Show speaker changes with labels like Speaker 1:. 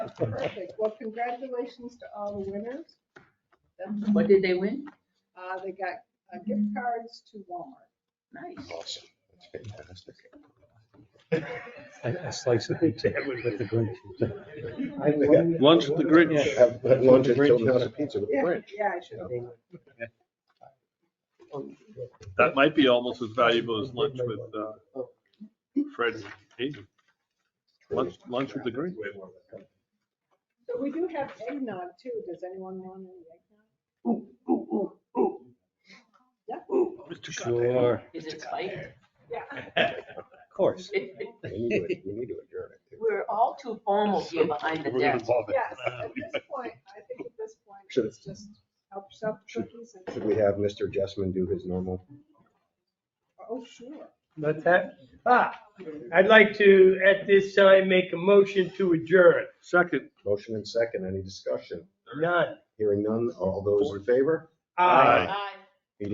Speaker 1: Perfect. Well, congratulations to all the winners. That's-
Speaker 2: What did they win?
Speaker 1: Uh, they got uh, gift cards to Walmart.
Speaker 2: Nice.
Speaker 3: Oh,
Speaker 4: Awesome. That's fantastic.
Speaker 5: I I slice the pizza with the Grinch.
Speaker 3: Lunch with the Grinch.
Speaker 4: Have have lunch at Tilden House of Pizza with the
Speaker 1: Yeah,
Speaker 4: Grinch.
Speaker 1: Yeah, I should.
Speaker 3: That might be almost as valuable as lunch with uh, Fred and Hazel. Lunch, lunch with the Grinch.
Speaker 1: So we do have eggnog too. Does anyone want any eggnog?
Speaker 3: Mr. Goddamn.
Speaker 5: Sure,
Speaker 2: Is it spiked?
Speaker 1: Yeah.
Speaker 5: of course.
Speaker 4: We need to, we need to adjourn it.
Speaker 2: We're all too formal here behind the
Speaker 3: We're gonna
Speaker 2: desk.
Speaker 3: involve it.
Speaker 1: Yes, at this point, I think at this point,
Speaker 4: Should-
Speaker 1: it's just help yourself to cookies and.
Speaker 4: Should we have Mr. Jessman do his normal?
Speaker 1: Oh, sure.
Speaker 6: What's that? Ah, I'd like to, at this time, make a motion to adjourn.
Speaker 3: Second,
Speaker 4: Motion and second, any discussion?
Speaker 6: None.
Speaker 4: Hearing none, all those in favor?
Speaker 6: Aye.
Speaker 3: Aye.
Speaker 1: Aye.